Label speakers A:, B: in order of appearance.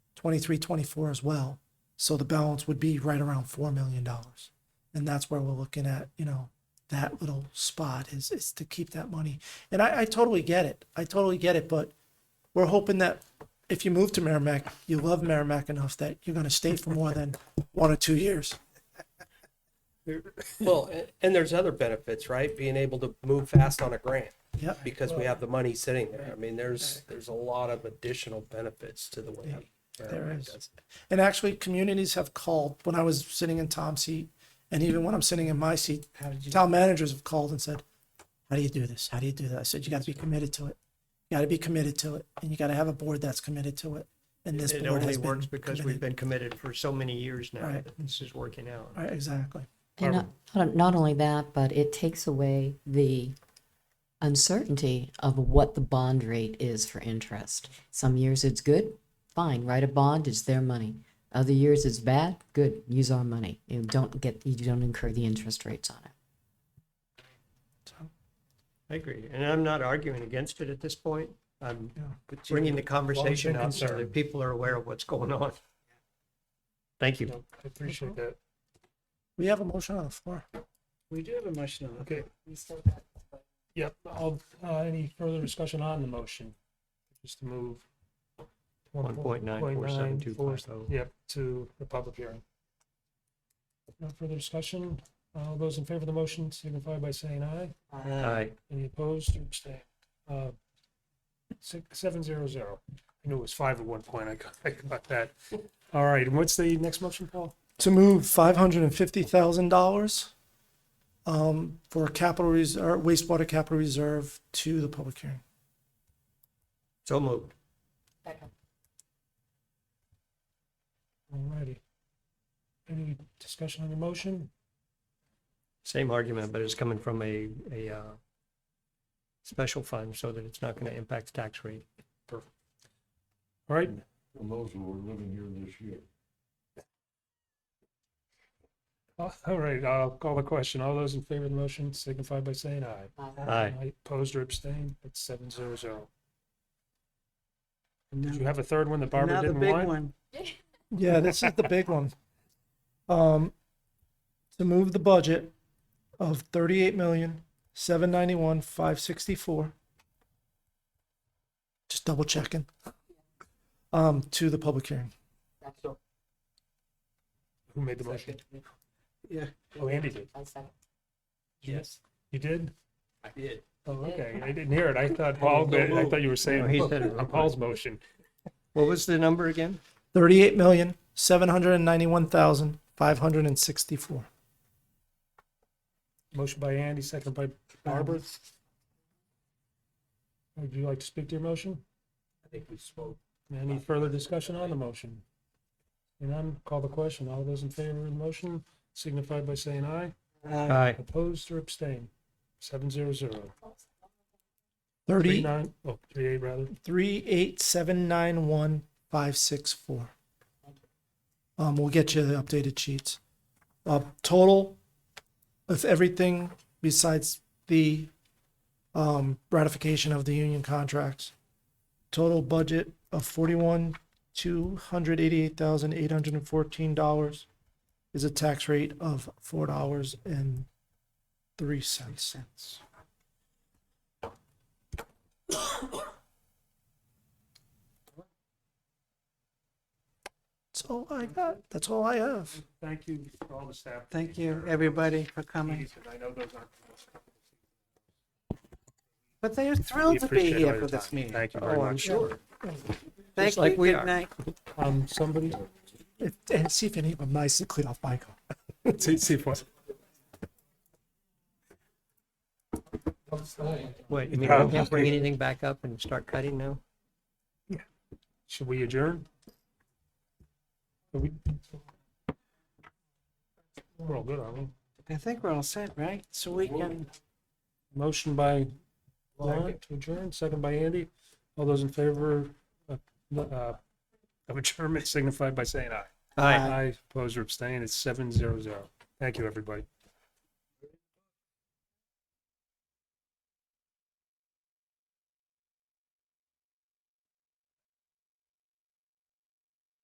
A: 23, 24 as well. So the balance would be right around $4 million. And that's where we're looking at, you know, that little spot is, is to keep that money. And I, I totally get it. I totally get it. But we're hoping that if you move to Merrimack, you love Merrimack enough that you're going to stay for more than one or two years.
B: Well, a- and there's other benefits, right? Being able to move fast on a grant
A: Yep.
B: because we have the money sitting there. I mean, there's, there's a lot of additional benefits to the way.
A: There is. And actually, communities have called when I was sitting in Tom's seat, and even when I'm sitting in my seat, town managers have called and said, How do you do this? How do you do that? I said, You got to be committed to it. You got to be committed to it. And you got to have a board that's committed to it. And this
C: It
A: board
C: only
A: has
C: works
A: been
C: because we've
A: committed.
C: been committed for so many years now
A: Right.
C: that this is working out.
A: Right, exactly.
D: And not, not- not only that, but it takes away the uncertainty of what the bond rate is for interest. Some years it's good, fine, write a bond, it's their money. Other years it's bad, good, use our money. You don't get, you don't incur the interest rates on it.
C: I agree. And I'm not arguing against it at this point. I'm
A: Yeah.
C: bringing the conversation
E: you're
C: up so that
E: concerned.
C: people are aware of what's going on. Thank you.
E: No, I appreciate that.
A: We have a motion on the floor.
F: We do have a motion on the
E: Okay. Yep, I'll, uh, any further discussion on the motion? Just to move.
C: 1.947250.
E: oh. Yep, to the public hearing. No further discussion. All those in favor of the motion signify by saying aye.
C: Aye.
E: Any opposed or abstained? Uh, Six, seven zero zero. I knew it was five at one point. I got, I got that. All right, and what's the next motion, Paul?
A: To move $550,000 um, for capital reserve, wastewater capital reserve to the public hearing.
C: So moved.
E: All righty. Any discussion on the motion?
C: Same argument, but it's coming from a, a, uh, special fund so that it's not going to impact the tax rate.
E: All right,
G: And those who were living here this year.
E: all right, Uh, I'll call the question. All those in favor of the motion signify by saying aye.
C: Aye.
E: Opposed or abstained? That's seven zero zero. Did you
F: Now
E: have a third one that Barbara
F: now the
E: didn't
F: big
E: want?
F: one.
A: Yeah, this is the big one. Um, to move the budget of thirty-eight million, seven ninety-one, five sixty-four. Just double checking. Um, to the public hearing.
E: Who made the motion?
F: Yeah.
E: Oh, Andy did.
B: Yes,
E: You did?
B: I did.
E: Oh, okay. I didn't hear it. I thought Paul, did. I thought you were saying
C: No, he said it.
E: on Paul's motion.
C: What was the number again?
A: Thirty-eight million, seven hundred and ninety-one thousand, five hundred and sixty-four.
E: Motion by Andy, second by Barbara. Would you like to speak to your motion?
B: I think we spoke.
E: Any further discussion on the motion? And I'm, call the question. All those in favor of the motion signify by saying aye.
F: Uh,
C: Aye.
E: Opposed or abstain? Seven zero zero. Three
A: Thirty,
E: nine, oh, three eight rather.
A: three, eight, seven, nine, one, five, six, four. Um, we'll get you the updated sheets. Uh, total of everything besides the um, ratification of the union contracts. Total budget of forty-one, two hundred eighty-eight thousand, eight hundred and fourteen dollars is a tax rate of four dollars and three cents. That's all I got. That's all I have.
E: Thank you for all the staff.
F: Thank you, everybody, for coming.
E: I know those aren't.
F: But they are thrilled to be here for this meeting.
E: Thank you very much.
C: sure.
F: Thank
C: Just like
F: you,
C: we
F: good
C: are.
F: night.
E: Um, somebody,
A: If, and see if any of them nicely clean off my car.
E: see, see if what?
C: Wait, you mean we can't bring anything back up and start cutting now?
E: Should we adjourn? Are we? We're all good, aren't we?
F: I think we're all set, right? So we can,
E: Motion by Lon to adjourn, second by Andy. All those in favor of, uh, of adjournment signify by saying aye.
C: Aye.
E: Aye, opposed or abstained, it's seven zero zero. Thank you, everybody.